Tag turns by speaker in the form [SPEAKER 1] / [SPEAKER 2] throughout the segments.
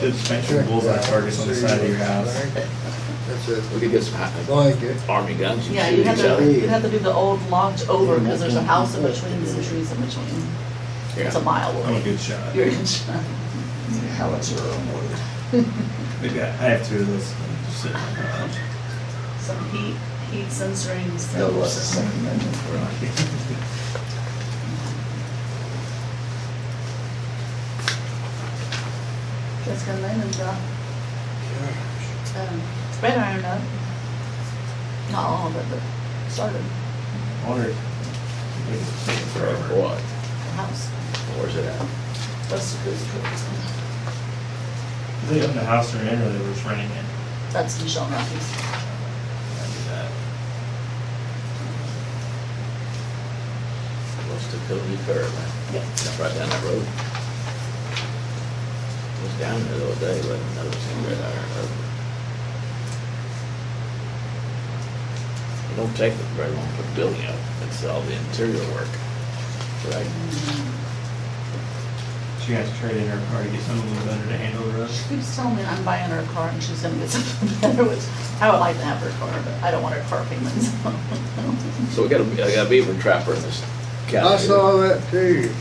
[SPEAKER 1] to just make sure bullseye targets on the side of your house.
[SPEAKER 2] That's it.
[SPEAKER 3] We could get some uh,
[SPEAKER 2] Like it.
[SPEAKER 3] army guns and
[SPEAKER 4] Yeah, you
[SPEAKER 3] shoot
[SPEAKER 4] have
[SPEAKER 3] each
[SPEAKER 4] to,
[SPEAKER 3] other.
[SPEAKER 4] you have to do the old launch over, because there's a house in between, and some trees in between. It's a
[SPEAKER 3] Yeah.
[SPEAKER 4] mile
[SPEAKER 1] I'm a
[SPEAKER 4] away.
[SPEAKER 1] good shot.
[SPEAKER 4] You're in shot.
[SPEAKER 5] Howitzer on wood.
[SPEAKER 1] Maybe I I have two of those. just sitting in my house.
[SPEAKER 4] Some heat, heat censoring.
[SPEAKER 5] No less than Second Amendment.
[SPEAKER 4] Just gonna land and drop, um, spread iron up. Not all, but the, sort of,
[SPEAKER 1] I wonder if we could take it
[SPEAKER 3] For
[SPEAKER 1] forever.
[SPEAKER 3] what?
[SPEAKER 4] the house.
[SPEAKER 3] Where's it at?
[SPEAKER 4] That's the good truth.
[SPEAKER 1] They owned the house they're in, or they were just renting it.
[SPEAKER 4] That's Michelle Murphy's.
[SPEAKER 1] I do that.
[SPEAKER 3] What's the Cody curve, man?
[SPEAKER 4] Yeah.
[SPEAKER 3] That's right down that road. Was down there the other day, but I never seen red iron over. It don't take very long to build it up. It's all the interior work. Right?
[SPEAKER 1] She has to trade in her car to get something a little better to handle the road.
[SPEAKER 4] She keeps telling me I'm buying her a car and she's gonna get something better, which I would like to have her car, but I don't want her car payments.
[SPEAKER 3] So we got a, I got a beaver trapper in this county.
[SPEAKER 2] I saw that too.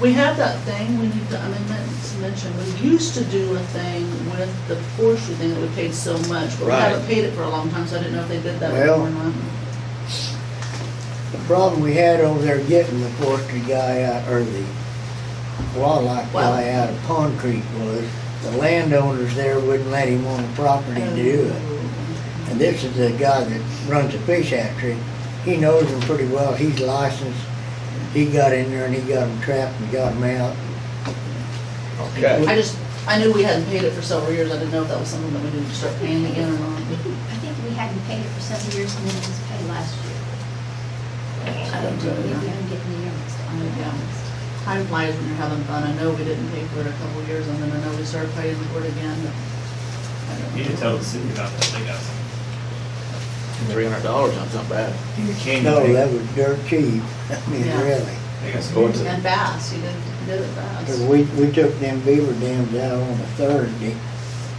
[SPEAKER 4] We have that thing, we need to, I mean, meant to mention, we used to do a thing with the forestry thing that we paid so much, but we
[SPEAKER 3] Right.
[SPEAKER 4] haven't paid it for a long time, so I didn't know if they did that
[SPEAKER 6] Well-
[SPEAKER 4] before or not.
[SPEAKER 6] The problem we had over there getting the forestry guy out, or the wildlife guy out of Pond Creek was, the landowners there wouldn't let him on the property to do it. And this is the guy that runs the fish hatchery, he knows them pretty well, he's licensed. He got in there and he got them trapped and got them out.
[SPEAKER 3] Okay.
[SPEAKER 4] I just, I knew we hadn't paid it for several years, I didn't know if that was something that we needed to start paying again or not.
[SPEAKER 7] I think we hadn't paid it for seven years and then it was paid last year. I don't know, we haven't gotten the years on the balance.
[SPEAKER 4] Time flies when you're having fun, I know we didn't pay for it a couple of years, and then I know we started paying for it again, but. I don't
[SPEAKER 1] You
[SPEAKER 4] know.
[SPEAKER 1] should tell the city about that, they got some.
[SPEAKER 3] Three hundred dollars, that's not bad.
[SPEAKER 1] In the canyon,
[SPEAKER 6] No,
[SPEAKER 1] they-
[SPEAKER 6] that was dirt cheap, I mean,
[SPEAKER 4] Yeah.
[SPEAKER 6] really.
[SPEAKER 1] They got some.
[SPEAKER 3] Going to-
[SPEAKER 4] And bass, you did, you did it fast.
[SPEAKER 6] Cause we, we took them beaver dams out on a Thursday,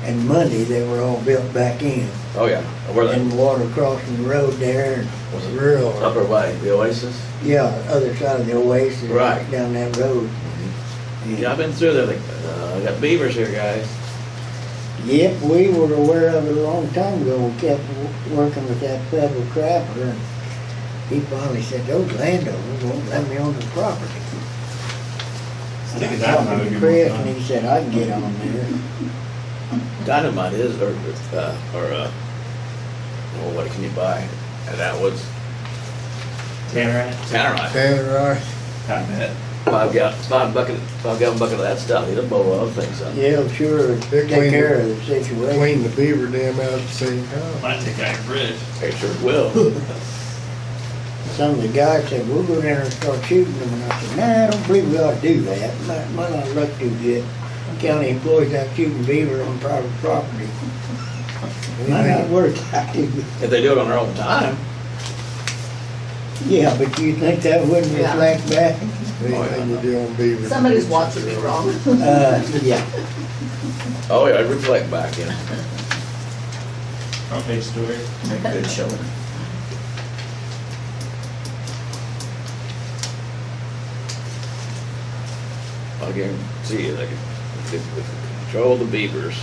[SPEAKER 6] and Monday they were all built back in.
[SPEAKER 3] Oh, yeah. Where
[SPEAKER 6] And
[SPEAKER 3] the,
[SPEAKER 6] water crossing the road there
[SPEAKER 3] Was it
[SPEAKER 6] and rural.
[SPEAKER 3] upper way, the Oasis?
[SPEAKER 6] Yeah, other side of the oasis.
[SPEAKER 3] Right. Mm-hmm.
[SPEAKER 6] Down that road.
[SPEAKER 3] Yeah, I've been through there, like, uh, I got beavers here, guys.
[SPEAKER 6] Yep, we were aware of it a long time ago. We kept w- working with that federal trapper and he finally said, those landowners won't let me on the property.
[SPEAKER 1] I
[SPEAKER 6] And
[SPEAKER 1] think
[SPEAKER 6] I
[SPEAKER 1] at that
[SPEAKER 6] talked
[SPEAKER 1] time would be
[SPEAKER 6] to
[SPEAKER 1] more
[SPEAKER 6] Chris
[SPEAKER 1] fun.
[SPEAKER 6] and he said, I can get on there.
[SPEAKER 3] Dynamite is, or, uh, or, uh, oh, what can you buy? And that was
[SPEAKER 1] Tannerite?
[SPEAKER 3] tannerite.
[SPEAKER 2] Tanner, I-
[SPEAKER 1] I bet.
[SPEAKER 3] Five gal, five bucket, five gallon bucket of that stuff, he'd blow all the things up.
[SPEAKER 6] Yeah, sure, take
[SPEAKER 2] clean-
[SPEAKER 6] care of the situation.
[SPEAKER 2] clean the beaver dam out at the same time.
[SPEAKER 1] Might take out your bridge.
[SPEAKER 3] They sure will.
[SPEAKER 6] Some of the guys said, we'll go down there and start shooting them, and I said, nah, I don't believe we ought to do that. Might, might not look too good. County employees out shooting beaver on private property. Might not work out too good.
[SPEAKER 3] If they do it on their own time,
[SPEAKER 6] Yeah, but you think that wouldn't
[SPEAKER 4] Yeah.
[SPEAKER 6] reflect back?
[SPEAKER 2] Anything you do on beaver.
[SPEAKER 4] Somebody's watching me wrong.
[SPEAKER 6] Uh, yeah.
[SPEAKER 3] oh, yeah, I'd reflect back, you know.
[SPEAKER 1] Front page story.
[SPEAKER 5] Make good showing.
[SPEAKER 3] I guarantee you, they can, if they could control the beavers,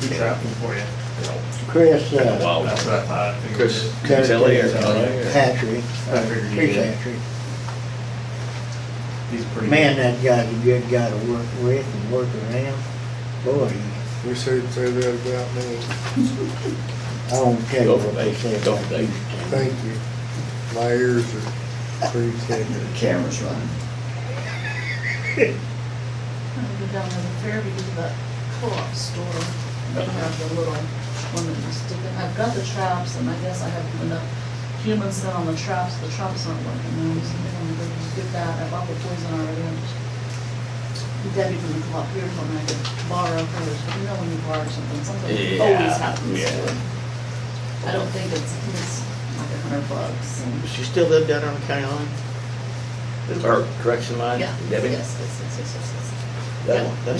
[SPEAKER 1] Who trapped them for you?
[SPEAKER 3] you know,
[SPEAKER 6] Chris,
[SPEAKER 3] in the
[SPEAKER 6] uh,
[SPEAKER 3] wild.
[SPEAKER 1] That's what I thought. I figured
[SPEAKER 3] Chris,
[SPEAKER 1] it.
[SPEAKER 6] Chris
[SPEAKER 3] Tilly or
[SPEAKER 6] Hatchery,
[SPEAKER 1] I figured you
[SPEAKER 6] Chris
[SPEAKER 1] did.
[SPEAKER 6] Hatchery.
[SPEAKER 1] He's pretty.
[SPEAKER 6] Man, that guy's a good guy to work with and work around. Boy,
[SPEAKER 2] Wish they'd say that about me.
[SPEAKER 6] I don't tell you
[SPEAKER 3] Go for
[SPEAKER 6] what they say.
[SPEAKER 3] it, go for it.
[SPEAKER 2] Thank you. My ears are pretty thick.
[SPEAKER 5] The camera's running.
[SPEAKER 4] I'm gonna go down to the fair because of that co-op store. They have the little one that you stick in. I've got the traps and I guess I have enough human scent on the traps. The traps aren't working. I'm just gonna go get that. I bought the poison already. I'm just- Debbie from the co-op here told me I could borrow hers, but you know when you borrow something, something always
[SPEAKER 3] Yeah,
[SPEAKER 4] happens.
[SPEAKER 3] yeah.
[SPEAKER 4] I don't think it's, it's like a hundred bucks. and-
[SPEAKER 3] Does she still live down there on the county line? Or correction line?
[SPEAKER 4] Yeah, yes,
[SPEAKER 3] Debbie?
[SPEAKER 4] yes, yes, yes, yes, yes.
[SPEAKER 3] That one, that